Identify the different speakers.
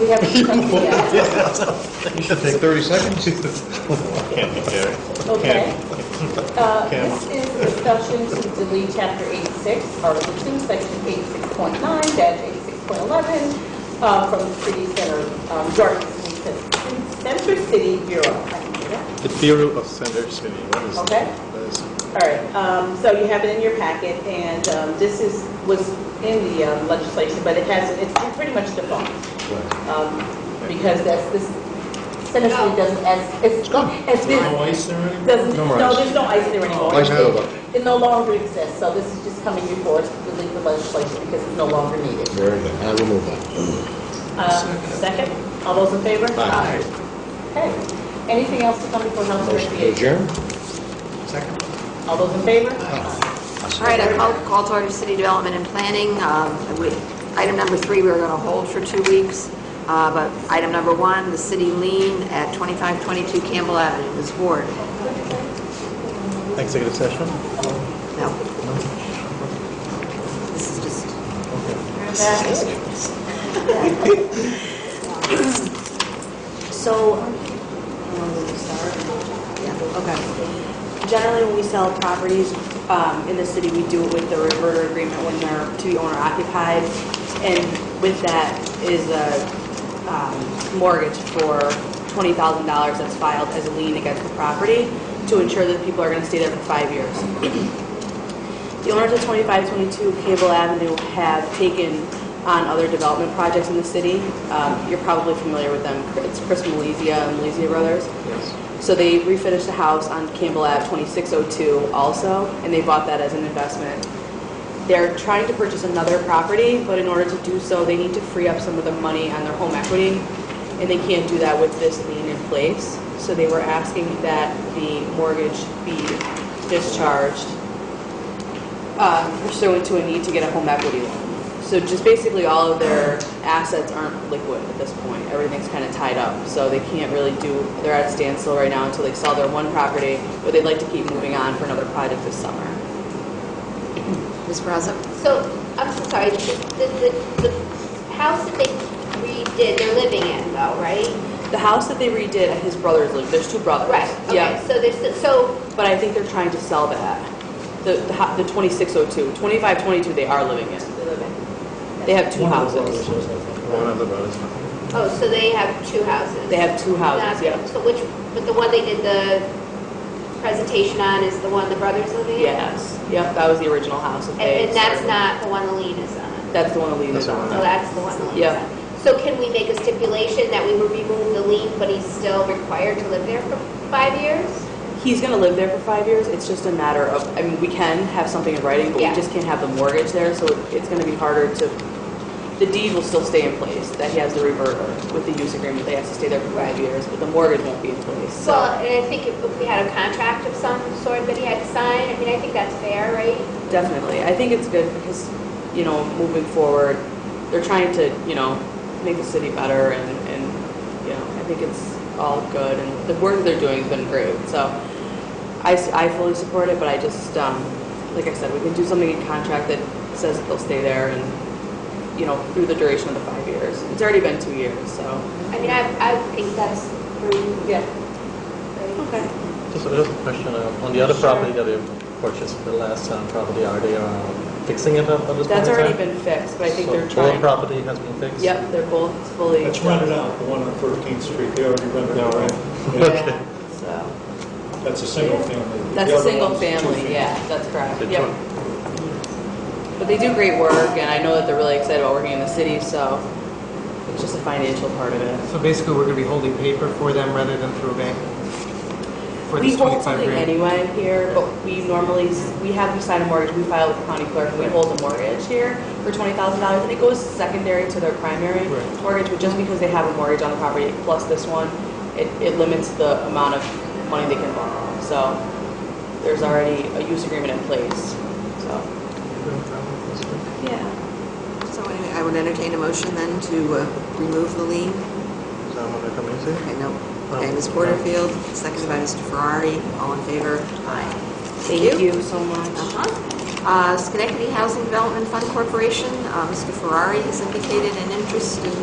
Speaker 1: We have a yeah.
Speaker 2: You should take 30 seconds.
Speaker 3: Can't be carried.
Speaker 1: Okay. Uh,
Speaker 3: Kim.
Speaker 1: This is discussion to delete chapter 86, article 2, section 86.9 dash 86.11 uh, from the city center, um, York City Center City Bureau. I can do that.
Speaker 3: The Bureau of Center City, what is
Speaker 1: Okay.
Speaker 3: that? What is it?
Speaker 1: All right, um, so you have it in your packet, and um, this is, was in the um, legislation, but it has, it's pretty much defunct. Um, Because that's, this, Center City doesn't, as, it's, it's been,
Speaker 3: Oh. No ice there anymore?
Speaker 1: doesn't,
Speaker 2: No more
Speaker 1: no,
Speaker 2: ice.
Speaker 1: there's no ice there anymore.
Speaker 2: Like
Speaker 1: It-
Speaker 2: Nova.
Speaker 1: It no longer exists, so this is just coming before us to delete the legislation because it's no longer needed.
Speaker 2: Very good. I will move on.
Speaker 1: Uh, Second, all those in favor?
Speaker 2: Aye.
Speaker 1: Okay, anything else to come before House and
Speaker 2: Motion to
Speaker 1: Recreation?
Speaker 2: adjourn?
Speaker 1: All those in favor?
Speaker 4: All right, I call, call to order city development and planning. Um, we- Item number three, we we're going to hold for two weeks, Uh, but item number one, the city lien at 2522 Campbell Avenue, Ms. Ward.
Speaker 3: Executive session?
Speaker 4: No. This is just,
Speaker 5: So, um, you want me to start?
Speaker 4: yeah, okay.
Speaker 5: generally, when we sell properties um, in the city, we do it with the reverter agreement when they're to be owner occupied. And with that is a um, mortgage for $20,000 that's filed as a lien against the property to ensure that people are going to stay there for five years. The owners of 2522 Cable Avenue have taken on other development projects in the city. Um, You're probably familiar with them. It's Chris Malizia and Malizia Brothers. Yes. So they refinished a house on Campbell Ave 2602 also, and they bought that as an investment. They're trying to purchase another property, but in order to do so, they need to free up some of the money on their home equity, and they can't do that with this lien in place. So they were asking that the mortgage be discharged uh, pursuant to a need to get a home equity loan. So just basically all of their assets aren't liquid at this point. Everything's kind of tied up. So they can't really do, they're at a standstill right now until they sell their one property, but they'd like to keep moving on for another project this summer.
Speaker 4: Ms. Braza?
Speaker 6: So, I'm so sorry, the, the, the the house that they redid, they're living in though, right?
Speaker 5: The house that they redid, his brothers live, there's two brothers.
Speaker 6: Right, okay,
Speaker 5: Yeah,
Speaker 6: so there's, so,
Speaker 5: but I think they're trying to sell that. The, the hou- the 2602, 2522, they are living in.
Speaker 6: they live in-
Speaker 5: They have two houses.
Speaker 3: One of the brothers.
Speaker 6: oh, so they have two houses?
Speaker 5: They have two houses,
Speaker 6: Okay,
Speaker 5: yeah.
Speaker 6: So which, but the one they did the presentation on is the one the brothers living in?
Speaker 5: Yes, yep, that was the original house that
Speaker 6: And,
Speaker 5: they.
Speaker 6: and that's
Speaker 5: started.
Speaker 6: not the one the lien is on?
Speaker 5: That's the one the lien
Speaker 3: That's
Speaker 5: is
Speaker 3: the
Speaker 5: on.
Speaker 6: So that's the one the lien is
Speaker 5: Yeah.
Speaker 6: on? So can we make a stipulation that we would remove the lien, but he's still required to live there for five years?
Speaker 5: He's gonna live there for five years, it's just a matter of, I mean, we can have something in writing, but we
Speaker 6: Yeah.
Speaker 5: just can't have the mortgage there, so it- it's gonna be harder to, the deed will still stay in place, that he has the reverter with the use agreement, they have to stay there for five
Speaker 6: Right.
Speaker 5: years, but the mortgage won't be in place,
Speaker 6: Well,
Speaker 5: so.
Speaker 6: and I think if if we had a contract of some sort that he had to sign, I mean, I think that's fair, right?
Speaker 5: Definitely, I think it's good because, you know, moving forward, they're trying to, you know, make the city better and, and, you know, I think it's all good, and the work that they're doing has been great, so. I, s- I fully support it, but I just, um, like I said, we can do something in contract that says that they'll stay there and, you know, through the duration of the five years. It's already been two years, so.
Speaker 6: I mean, I, I think that's pretty,
Speaker 5: Yeah.
Speaker 6: right?
Speaker 5: Okay.
Speaker 7: Just a little question, uh, on the other property that you purchased, the last um, property, are they um, fixing it up at this point in time?
Speaker 5: That's already been fixed, but I think they're
Speaker 7: So both
Speaker 5: trying.
Speaker 7: property has been fixed?
Speaker 5: Yep, they're both fully.
Speaker 8: It's rented out, the one on 13th Street, they already rented out, right?
Speaker 5: Yeah, So,
Speaker 8: That's a single family.
Speaker 5: that's
Speaker 8: The
Speaker 5: a
Speaker 8: other
Speaker 5: single
Speaker 8: one's two
Speaker 5: family,
Speaker 8: families.
Speaker 5: yeah, that's correct,
Speaker 7: Good
Speaker 5: yep.
Speaker 7: job.
Speaker 5: But they do great work, and I know that they're really excited about working in the city, so it's just a financial part of it.
Speaker 9: So basically, we're gonna be holding paper for them rather than through a bank? For
Speaker 5: We
Speaker 9: this
Speaker 5: hold
Speaker 9: 25
Speaker 5: something
Speaker 9: grand?
Speaker 5: anyway here, but we normally, s- we have, we sign a mortgage, we file with the county clerk, and we hold a mortgage here for twenty thousand dollars, and it goes secondary to their primary
Speaker 9: Right.
Speaker 5: mortgage, but just because they have a mortgage on the property plus this one, it, it limits the amount of money they can borrow, so there's already a use agreement in place, so. Yeah.
Speaker 4: So anyway, I would entertain a motion then to uh, remove the lien.
Speaker 3: Is that one that coming to?
Speaker 4: Okay, no. Okay, Ms. Porterfield, seconded by Mr. Ferrari, all in favor? Aye.
Speaker 5: Thank you so much.
Speaker 4: Uh-huh. Uh, Schenectady Housing Development Fund Corporation, uh, Mr. Ferrari has indicated an interest in